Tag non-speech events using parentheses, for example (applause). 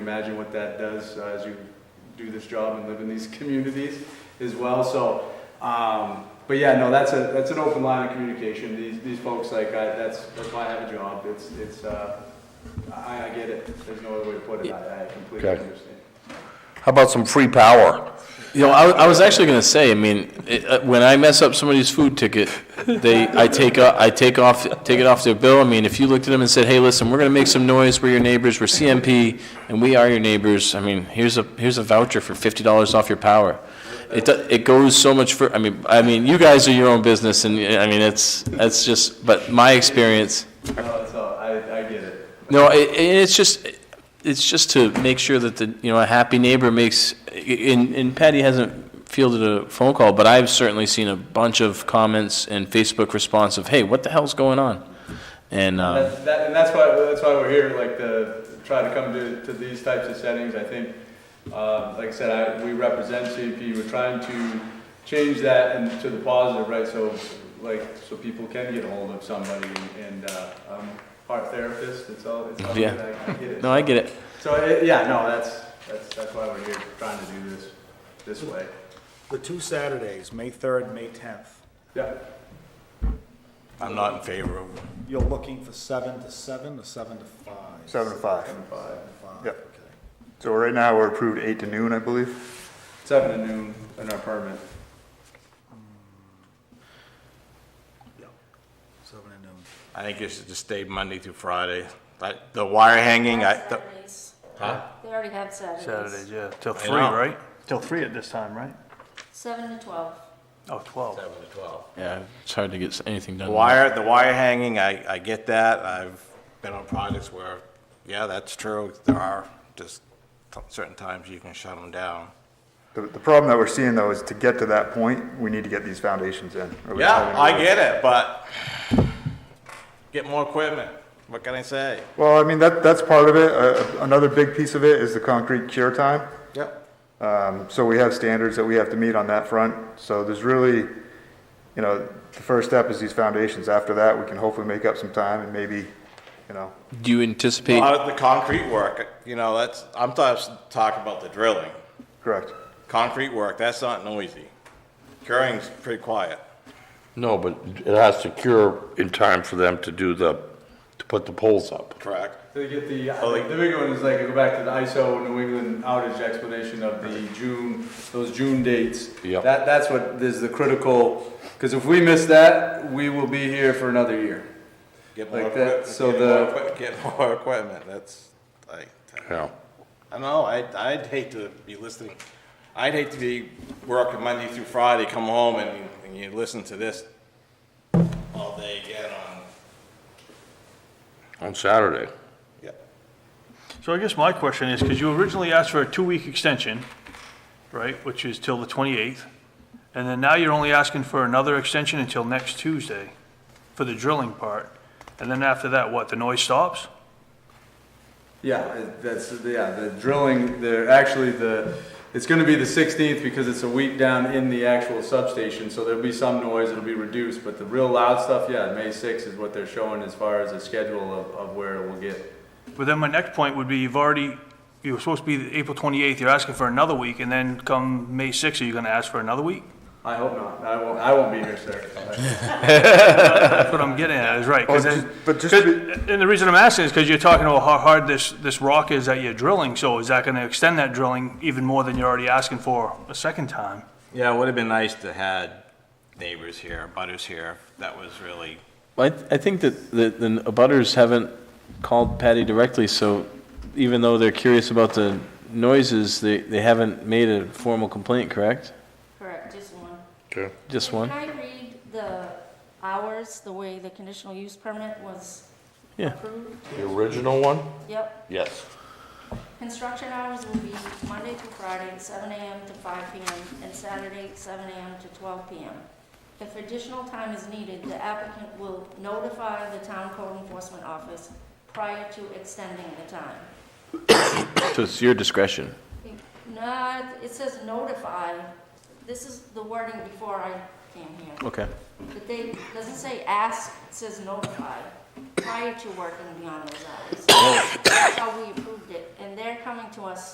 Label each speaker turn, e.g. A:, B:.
A: Imagine what that does uh, as you do this job and live in these (laughs) communities as well. So, um, but yeah, no, that's a, that's an open line of communication. These, these folks, like, I, that's, that's why I have a job. It's, it's, uh, I, I get it. There's no other way to put it. I, I completely
B: Okay.
A: understand.
B: How about some free power?
C: You know, I, I was actually going to say. I mean, it, uh, when I mess up somebody's food ticket, they I take o- I take off take it off their bill. I mean, if you looked at them and said, "Hey, listen, we're going to make some noise. We're your neighbors. We're CMP, and we are your neighbors." I mean, here's a here's a voucher for fifty dollars off your power. It do- it goes so much for. I mean, I mean, you guys are your own business, and I mean, it's that's just. But my experience.
A: No, it's all, I, I get it.
C: No, i i- it's just, it's just to make sure that the, you know, a happy neighbor makes, and, and Patty hasn't fielded a phone call, but I've certainly seen a bunch of comments and Facebook response of, hey, what the hell's going on? And, uh,
A: That's, that, and that's why, that's why we're here, like, to try to come to, to these types of settings, I think, uh, like I said, I, we represent CMP, we're trying to change that and to the positive, right, so, like, so people can get a hold of somebody, and, uh, I'm a art therapist, it's all, it's all,
C: Yeah.
A: good, I I get it.
C: no, I get it.
A: So, it- yeah, no, that's, that's, that's why we're here, trying to do this, this way,
D: The two Saturdays, May 3rd, May 10th,
A: yeah.
B: I'm not in favor of.
D: you're looking for 7 to 7 or 7 to 5?
E: Seven to five.
A: Five,
E: Yep.
D: okay.
E: So right now, we're approved eight to noon, I believe.
A: seven to noon in our permit,
D: Yep. 7 and noon.
B: I think you should just stay Monday through Friday. Like, the wire hanging, I, the-
F: Saturdays. They already have Saturdays.
G: Saturdays, yeah, till
B: I
G: three,
B: know.
G: right?
E: Till three at this time, right?
F: Seven to twelve.
G: Oh, twelve.
B: Seven to twelve.
C: Yeah, it's hard to get s- anything
B: The
C: done.
B: wire, the wire hanging, I, I get that. I've been on projects where, yeah, that's true. There are just t- certain times you can shut them down.
E: The, the problem that we're seeing though is to get to that point, we need to get these foundations in. or we haven't
B: Yeah, I
E: really-
B: get it, but get more equipment. What can I say?
E: Well, I mean, that, that's part of it. Uh, another big piece of it is the concrete cure time.
D: Yep.
E: Um, so we have standards that we have to meet on that front. So there's really, you know, the first step is these foundations. After that, we can hopefully make up some time and maybe, you know,
C: Do you anticipate,
B: Out of Uh, the concrete work, you know, that's, I'm talking, talking about the drilling.
E: correct.
B: Concrete work, that's not noisy. Curing's pretty quiet.
H: No, but it has to cure in time for them to do the, to put the poles up.
B: Correct.
A: So you get the,
B: Oh, like-
A: the big one is like, I go back to the ISO New England outage explanation of the June, those June dates.
H: Yep.
A: That, that's what is the critical, because if we miss that, we will be here for another year.
B: Get more
A: Like
B: equipment,
A: that, so
B: get more
A: the-
B: equip- get more equipment, that's, like,
H: Yeah.
B: I don't know, I'd, I'd hate to be listening, I'd hate to be working Monday through Friday, come home and, and you listen to this all day again on,
H: On Saturday.
B: yeah.
G: So I guess my question is, because you originally asked for a two-week extension, right, which is till the twenty-eighth, and then now you're only asking for another extension until next Tuesday for the drilling part, and then after that, what, the noise stops?
A: Yeah, it- that's, yeah, the drilling, they're actually the, it's gonna be the sixteenth because it's a week down in the actual substation, so there'll be some noise, it'll be reduced, but the real loud stuff, yeah, May sixth is what they're showing as far as the schedule of, of where it will get.
G: But then my next point would be, you've already, you were supposed to be the April twenty-eighth, you're asking for another week, and then come May sixth, are you gonna ask for another week?
A: I hope not, I won't, I won't be here, sir.
G: That's what I'm getting at, is right, 'cause
E: Well,
G: then-
E: Oh, just- but just
G: Cause-
E: be-
G: And the reason I'm asking is because you're talking about how hard this, this rock is that you're drilling, so is that gonna extend that drilling even more than you're already asking for a second time?
B: Yeah, it would've been nice to had neighbors here, butters here, that was really.
C: I, I think that the, the abutters haven't called Patty directly, so even though they're curious about the noises, they, they haven't made a formal complaint, correct?
F: Correct, just one.
H: Okay.
C: Just one?
F: Can I read the hours, the way the conditional use permit was
C: Yeah.
F: approved?
H: The original one?
F: Yep.
H: Yes.
F: Construction hours will be Monday through Friday, seven AM to five PM, and Saturday, seven AM to twelve PM. If additional time is needed, the applicant will notify the town code enforcement office prior to extending the time.
C: So it's your discretion.
F: No, it says notify. This is the wording before I came here.
C: Okay.
F: But they, doesn't say ask, it says notify, prior to working beyond those hours. That's how we approved it, and they're coming to us